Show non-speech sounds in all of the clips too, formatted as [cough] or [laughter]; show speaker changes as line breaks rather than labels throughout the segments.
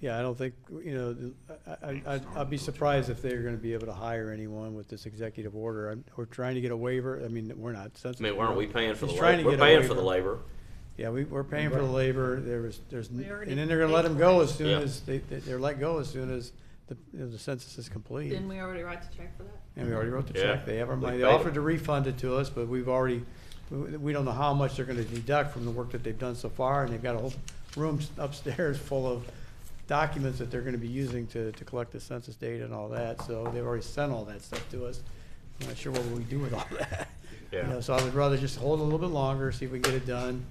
Yeah, I don't think, you know, I, I, I'd- I'd be surprised if they're gonna be able to hire anyone with this executive order. I'm- We're trying to get a waiver, I mean, we're not.
I mean, why aren't we paying for the
He's
labor?
trying to
We're
get a
paying for the
waiver.
labor.
Yeah, we, we're paying for the labor, there was, there's, and
We already
then they're gonna let them go as soon
Yeah.
as, they, they- they're let go as soon as the, you know, the census is complete.
Didn't we already write the check for that?
And we already wrote the
Yeah.
check, they have our
We
money, they
paid 'em.
offered to refund it to us, but we've already, we we don't know how much they're gonna deduct from the work that they've done so far, and they've got a whole room [laughs] upstairs full of documents that they're gonna be using to, to collect the census data and all that, so they've already sent all that stuff to us. I'm not sure what we do with all [laughs] that. You
Yeah.
know, So I would rather just hold a little bit longer, see if we can get it done.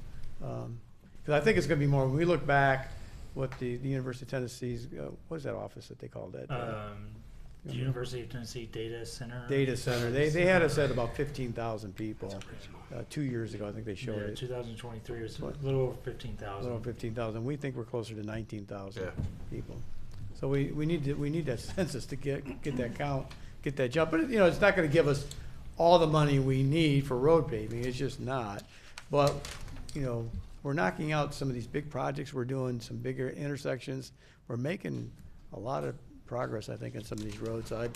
Um, Cause I think it's gonna be more, when we look back, what the, the University of Tennessee's, uh, what is that office that Uh, they called it?
Um, the
Yeah.
University of Tennessee Data Center.
data center. They, they had us at about fifteen thousand people, uh, two years ago, I think they
Yeah,
showed it,
2023 was a
What?
little over 15,000.
little fifteen thousand. We think we're closer to nineteen thousand
Yeah.
people. So we, we need to, we need that [laughs] census to get, get that count, get that jump. But, you know, it's not gonna give us all the money we need for road paving. It's just not. But, you know, we're knocking out some of these big projects. We're doing some bigger intersections. We're making a lot of progress, I think, on some of these roads. I,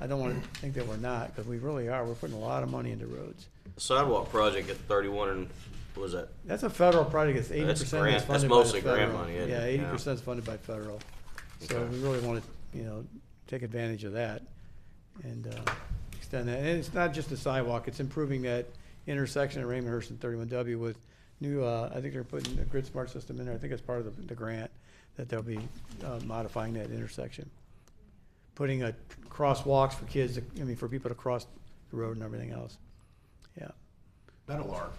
I don't wanna think that we're not, because we really are. We're putting a lot of money into roads.
Sidewalk project at thirty-one and, what was that?
That's a federal project, it's eighty
That's
percent
grant-
is
that's
funded by the
mostly
federal.
grant money, isn't
Yeah,
it?
eighty
Yeah.
percent is funded by federal. So
Okay.
we really wanna, you know, take advantage of that and, uh, extend that. And it's not just the sidewalk, it's improving that intersection at Raymond Hurst and thirty-one W with new, uh, I think they're putting a grid smart system in there. I think it's part of the, the grant that they'll be, uh, modifying that intersection. Putting a crosswalks for kids, to- I mean, for people to cross the road and everything else. Yeah.
Metal Arc.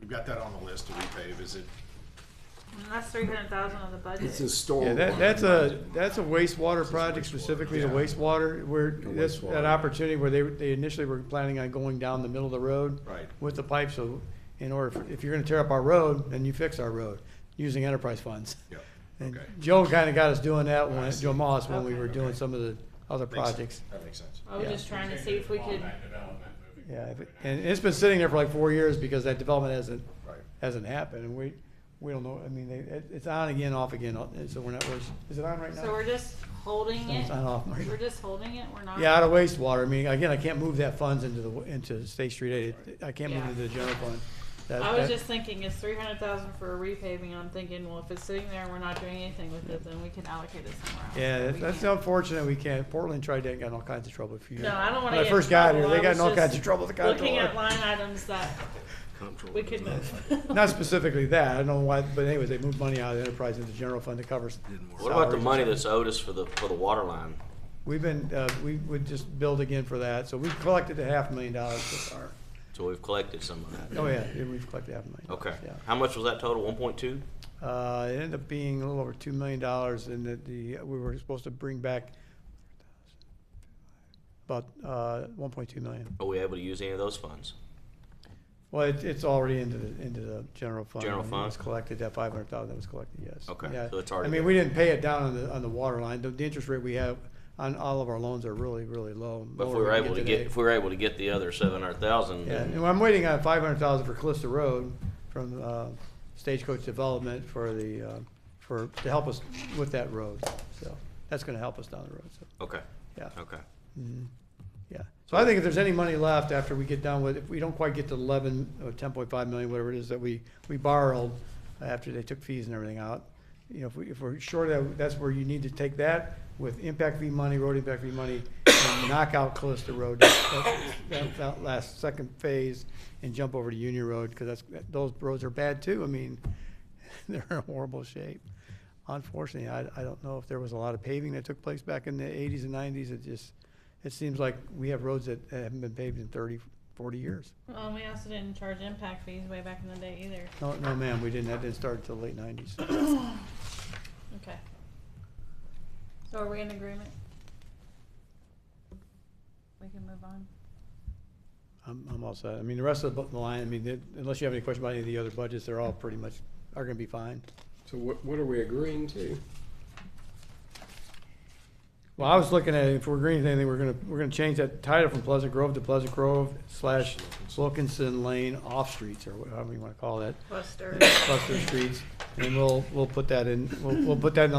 We've got that on the list to repave, is it?
And that's three hundred thousand of the budget.
It's a storm.
Yeah, that,
one.
that's a, that's a wastewater project specifically, the
yeah.
wastewater, where, that's that
wastewater.
opportunity where they, they initially were planning on going down the middle of the road.
Right.
With the pipe, so in order, for- if you're gonna tear up our road, then you fix our road, using enterprise funds.
Yep,
And
okay.
Joe kinda got us doing that when,
see.
Joe Moss, when we
Okay.
were doing some of the other
Makes sense.
projects.
That makes sense.
I was
yeah.
just trying to see if we could,
Yeah, if it- and it's been sitting there for like four years because that development hasn't,
Right.
hasn't happened, and we, we don't know, I mean, they, it, it's on again, off again, so we're not, we're, is it on right now?
so we're just holding
It's
it,
on off.
we're just holding it, we're not.
Yeah, out of wastewater, I mean, again, I can't move that funds into the, into State Street Aid, I can't move it into the general fund. That-
I was
that-
just thinking, it's three hundred thousand for a repaving, and I'm thinking, well, if it's sitting there and we're not doing anything with it, then we can allocate it somewhere else.
Yeah,
but
that's-
we
that's
can't.
unfortunate, we can't, Portland tried that and got in all kinds of trouble a few years.
No, I don't wanna
When
get
I
in
first got
trouble.
here, they
I
got
was
in all kinds
just
of trouble with the
Looking at
comptroller.
line items that we could move.
Not specifically that, I don't know why, but anyways, they moved money out of the enterprise into the general fund to cover. s-
What about the
salaries.
money that's owed us for the, for the water line?
We've been, uh, we would just build again for that, so we've collected a half million dollars so far.
So we've collected some of that.
Oh, yeah, yeah, we've collected half a million. dollars,
Okay.
Yeah.
How much was that total? One point two?
Uh, it ended up being a little over two million dollars and that the, we were supposed to bring back about, uh, one point two million.
Are we able to use any of those funds?
Well, it, it's already into the, into the general fund.
General
I mean, It
fund?
was collected, that five hundred thousand that was collected, yes.
Okay,
Yeah.
so it's already
I mean,
there.
we didn't pay it down on the, on the water line. The, the interest rate we have on all of our loans are really, really low.
But if
lower
we were
than
able to get,
today.
if we were able to get the other seven hundred thousand,
Yeah, and
then
I'm waiting on five hundred thousand for Calista Road from, uh, Stagecoach Development for the, uh, for, to help us with that road, so, that's gonna help us down the road, so,
okay,
yeah,
okay.
yeah. So I think if there's any money left after we get done with, if we don't quite get to eleven, or ten point five million, whatever it is that we, we borrowed after they took fees and everything out, you know, if we, if we're short of, that, that's where you need to take that with impact fee money, road impact fee money, and knock out Calista Road, that, that- that last second phase, and jump over to Union Road, cause that's, that- those roads are bad too, I mean, [laughs] they're in horrible shape. Unfortunately, I, I don't know if there was a lot of paving that took place back in the eighties and nineties, it just, it seems like we have roads that haven't been paved in 30, 40 years.
[laughs] Well, we also didn't charge impact fees way back in the day either,
No, no, ma'am, we didn't, that didn't start until late nineties.
okay. So are we in agreement? We can move on.
I'm, I'm all set. I mean, the rest of the bu- the line, I mean, it- unless you have any question about any of the other budgets, they're all pretty much, are gonna be fine.
So what, what are we agreeing to?
Well, I was looking at, if we're agreeing to anything, we're gonna, we're gonna change that title from Pleasant Grove to Pleasant Grove slash Wilkinson Lane off streets, or whatever you wanna call that,
Buster.
cluster streets. And we'll, we'll put that in, we'll, we'll put that in the